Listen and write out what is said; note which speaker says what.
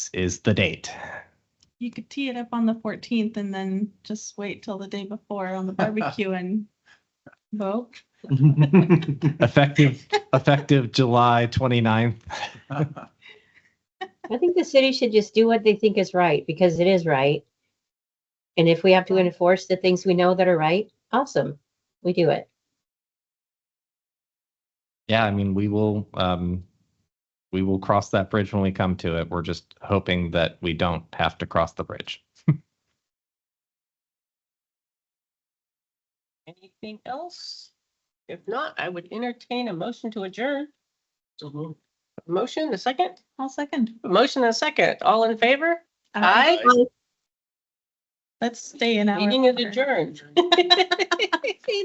Speaker 1: is the date.
Speaker 2: You could tee it up on the fourteenth and then just wait till the day before on the barbecue and vote.
Speaker 1: Effective, effective July 29th.
Speaker 3: I think the city should just do what they think is right because it is right. And if we have to enforce the things we know that are right, awesome, we do it.
Speaker 1: Yeah, I mean, we will, um, we will cross that bridge when we come to it. We're just hoping that we don't have to cross the bridge.
Speaker 4: Anything else? If not, I would entertain a motion to adjourn. Motion, a second?
Speaker 2: I'll second.
Speaker 4: A Motion, and a second. All in favor?
Speaker 2: Uh,
Speaker 4: Aye.
Speaker 2: Let's stay an hour.
Speaker 4: Meeting is
Speaker 2: longer.
Speaker 4: adjourned.